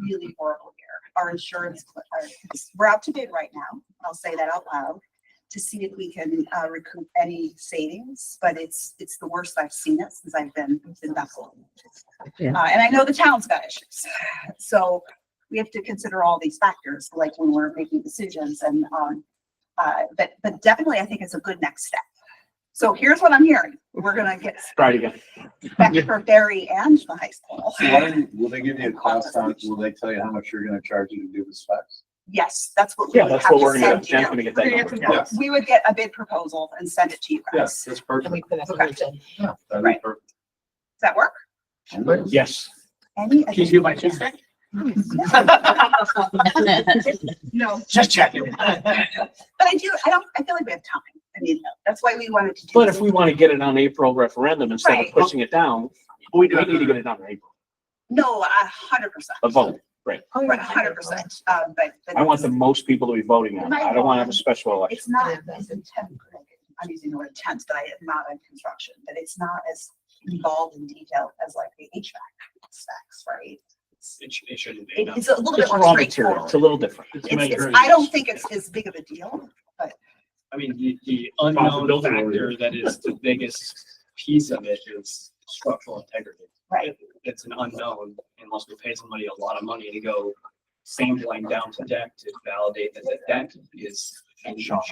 really horrible year. Our insurance, cl- our- we're out to bid right now. I'll say that out loud to see if we can uh, recoup any savings, but it's, it's the worst I've seen it since I've been in Bethel. Yeah. Uh, and I know the town's got issues. So we have to consider all these factors, like when we're making decisions and, um, uh, but, but definitely I think it's a good next step. So here's what I'm hearing. We're gonna get Try it again. back for Barry and the high school. So why don't you, will they give you a cost on, will they tell you how much you're gonna charge you to do the specs? Yes, that's what we Yeah, would that's have what we're to gonna, send do. Jen's you. gonna get that number. Yeah. Yes, We would get a bid proposal and send it to you guys. Does yes, that's perfect. Yeah, that'd be Right. perfect. that work? Yes. Any? Can you do my check? No, Just checking. but I do, I don't, I feel like we have time. I mean, that's why we wanted to do. But this. if we want to get it on April referendum instead of Right. pushing it down, we we need to get it done in April, No, a hundred percent. a vote. Right, a hundred percent, uh, but. but I want the most people to be voting on it. I don't want to have a special election. It's not as intense, I'm using the word intense, but I am not in construction, but it's not as involved in detail as like the HVAC specs, right? It's- It should, it shouldn't be. It, no. it's a little bit It's more raw material. straightforward. It's a little different. It's It's, it's, measuring- I don't think it's as big of a deal. I mean, the, the unknown Possibility. factor that is the biggest piece of it is structural integrity. Right. It- It's an unknown unless we pay somebody a lot of money to go sampling down to deck to validate that the deck is in shape.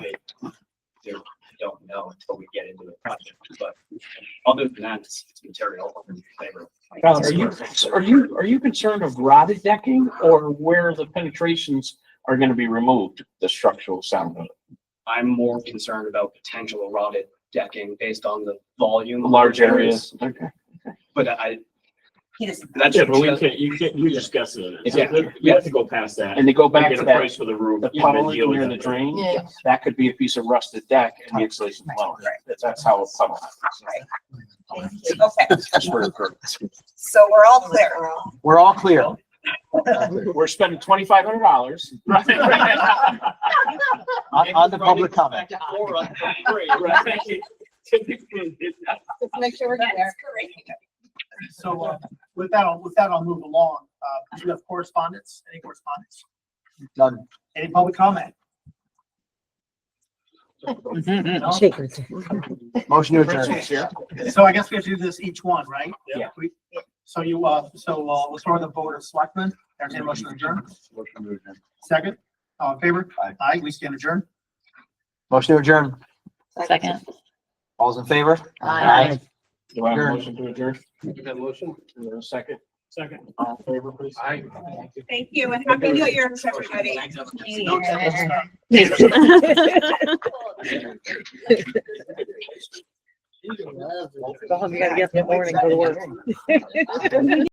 They don't know until we get into the project, but other than that, it's it's material. and flavor. Colin, are you, are you, are you concerned of rotted decking or where the penetrations are going to be removed, the structural sound? I'm more concerned about potential rotted decking based on the volume. of Large areas, areas. Okay. But I, He doesn't. that's. Yeah, but we just- can't, you can't, you discuss it. Yeah. We have to go past that. And to go We back get to a that, price for the roof. the and then puddle deal with near the it. drain, that could be a piece of rusted deck and the insulation blown. That's how a puddle. happens. Okay, That's where it occurs. so we're all clear. We're all clear. We're spending twenty-five hundred dollars on, on the public comment. Or on three, right? Make sure we're there. So uh, with that, I'll- with that, I'll move along. Uh, Do you have correspondence? Any correspondence? None. Any public comment? Motion to adjourn. So I guess we have to do this each one, right? Yeah. We- So you, uh, so uh, let's start with the board of selectmen. Entertained motion to adjourn. Motion to adjourn. Second, all in favor? Aye. Aye, we stand adjourned. Motion to adjourn. Second. All's in favor? Aye. Do I have a Adjourn. motion to adjourn? Give that motion. Is there a second? Second. All in favor, please? Aye. Thank you and happy new year to everybody. Long, you gotta get up in the morning, go to work.